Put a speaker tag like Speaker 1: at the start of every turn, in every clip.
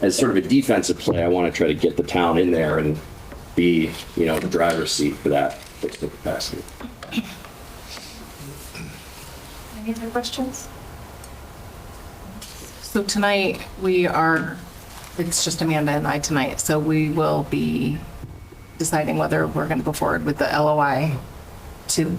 Speaker 1: as sort of a defensive play, I want to try to get the town in there and be, you know, the driver's seat for that fiscal capacity.
Speaker 2: Any other questions?
Speaker 3: So tonight, we are, it's just Amanda and I tonight, so we will be deciding whether we're going to go forward with the LOI to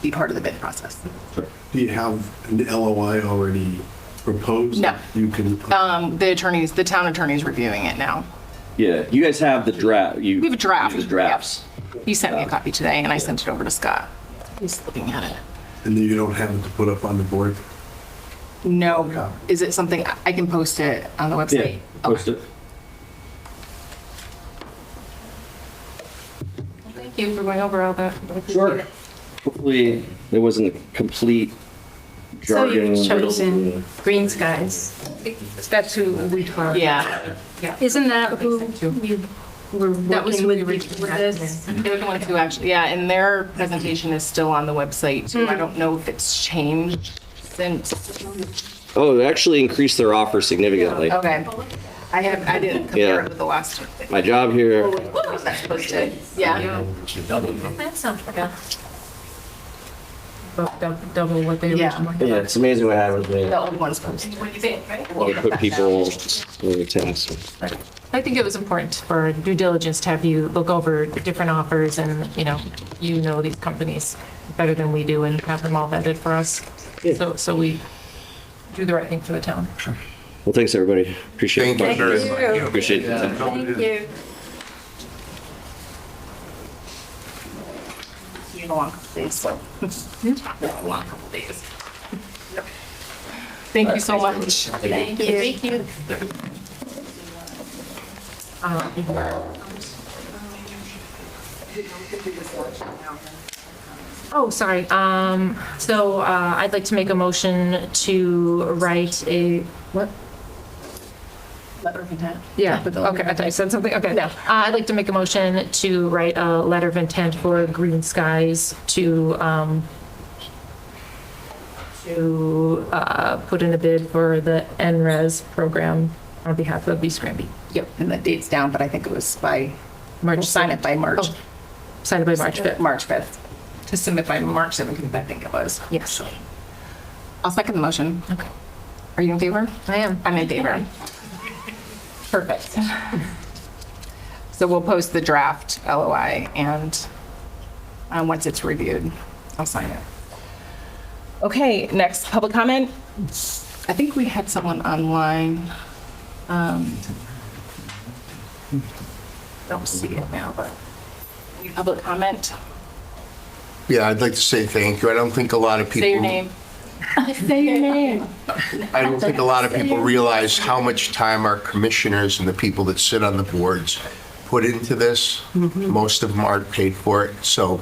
Speaker 3: be part of the bid process.
Speaker 4: Do you have an LOI already proposed?
Speaker 3: No.
Speaker 4: You can,
Speaker 3: Um, The attorneys, the town attorney's reviewing it now.
Speaker 1: Yeah, you guys have the draft. You
Speaker 3: We have a draft.
Speaker 1: The drafts.
Speaker 3: He sent me a copy today, and I sent it over to Scott. He's looking at it.
Speaker 4: and then you don't have it to put up on the board?
Speaker 3: No, is it something, I can post it on the
Speaker 1: Yeah,
Speaker 3: website?
Speaker 1: post it.
Speaker 2: Thank you for going over all that.
Speaker 1: Sure. Hopefully, there wasn't a complete
Speaker 2: So
Speaker 1: jargon.
Speaker 2: you've
Speaker 1: riddle.
Speaker 2: chosen Green Skies. That's who we were.
Speaker 3: Yeah.
Speaker 2: Isn't that who we were
Speaker 3: That
Speaker 2: working
Speaker 3: was who we
Speaker 2: with
Speaker 3: reached
Speaker 2: with
Speaker 3: out
Speaker 2: this?
Speaker 3: They're the ones who actually, yeah, and their presentation is still on the website too. I don't know if it's changed since.
Speaker 1: Oh, they actually increased their offer significantly.
Speaker 3: Okay. I have, I didn't compare it with the last one.
Speaker 1: My job here,
Speaker 3: That's posted. Yeah,
Speaker 2: That sounds good.
Speaker 5: double what they
Speaker 3: Yeah.
Speaker 5: originally
Speaker 1: yeah,
Speaker 5: had.
Speaker 1: it's amazing what happens when
Speaker 3: the old one's posted.
Speaker 1: you put people in the task.
Speaker 5: I think it was important for due diligence to have you look over different offers and, you know, you know these companies better than we do and have them all vetted for us. So, so we do the right thing for the town.
Speaker 1: Well, thanks, everybody. Appreciate it.
Speaker 2: Thank you.
Speaker 1: Appreciate it.
Speaker 2: Thank you.
Speaker 3: You know, long couple days, so. Yeah, long couple days. Thank you so much.
Speaker 2: Thank you.
Speaker 5: Oh, sorry. Um, so, uh, I'd like to make a motion to write a, what?
Speaker 3: Letter of intent.
Speaker 5: Yeah, okay, I thought you said something, okay. Uh, I'd like to make a motion to write a letter of intent for Green Skies to, um, to, uh, put in a bid for the NRES program on behalf of East Granby. Yep.
Speaker 3: And the date's down, but I think it was by,
Speaker 5: March
Speaker 3: we'll sign it by March,
Speaker 5: Oh, Signed by March 5th.
Speaker 3: March 5th. To submit by March 7th, I think it was.
Speaker 5: Yes.
Speaker 3: I'll second the motion.
Speaker 5: Okay.
Speaker 3: Are you in favor?
Speaker 5: I am.
Speaker 3: I'm in favor. Perfect. So we'll post the draft LOI and uh, once it's reviewed, I'll sign it. Okay, next, public comment. I think we had someone online. um, Don't see it now, but any public comment.
Speaker 6: Yeah, I'd like to say thank you. I don't think a lot of people.
Speaker 3: Say your name. Say your name.
Speaker 6: I don't think a lot of people realize how much time our commissioners and the people that sit on the boards put into this.
Speaker 3: Mm-hmm.
Speaker 6: Most of them aren't paid for it. So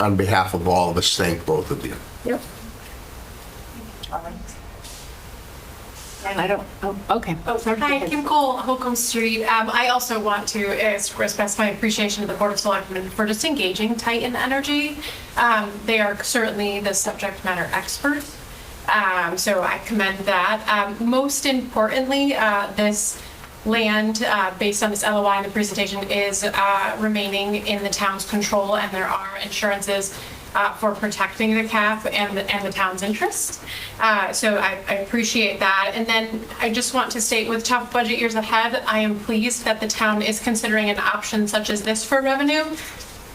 Speaker 6: on behalf of all of us, thank both of you.
Speaker 5: Yep.
Speaker 3: And I don't, oh, okay.
Speaker 7: Oh, hi, Kim Cole, Holcomb Street. Um, I also want to express my appreciation to the Board of Selectmen for just engaging Titan Energy. Um, they are certainly the subject matter experts. Um, so I commend that. Um, most importantly, uh, this land, uh, based on this LOI and the presentation, is, uh, remaining in the town's control and there are insurances uh, for protecting the CAF and, the- and the town's interest. Uh, So I, I appreciate that. And then I just want to state with tough budget years ahead, I am pleased that the town is considering an option such as this for revenue,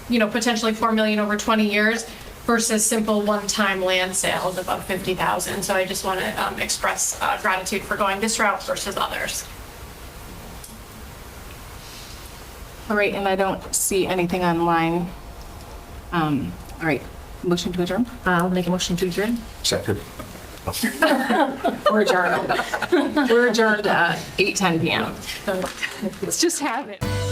Speaker 7: you know, potentially 4 million over 20 years versus simple one-time land sales above 50,000. So I just want to express uh, gratitude for going this route versus others.
Speaker 3: All right, and I don't see anything online. Um, All right, motion to adjourn?
Speaker 5: I'll make a motion to adjourn.
Speaker 6: Second.
Speaker 3: We're adjourned. We're adjourned at 8:10 PM.
Speaker 5: So-
Speaker 3: Let's just have it.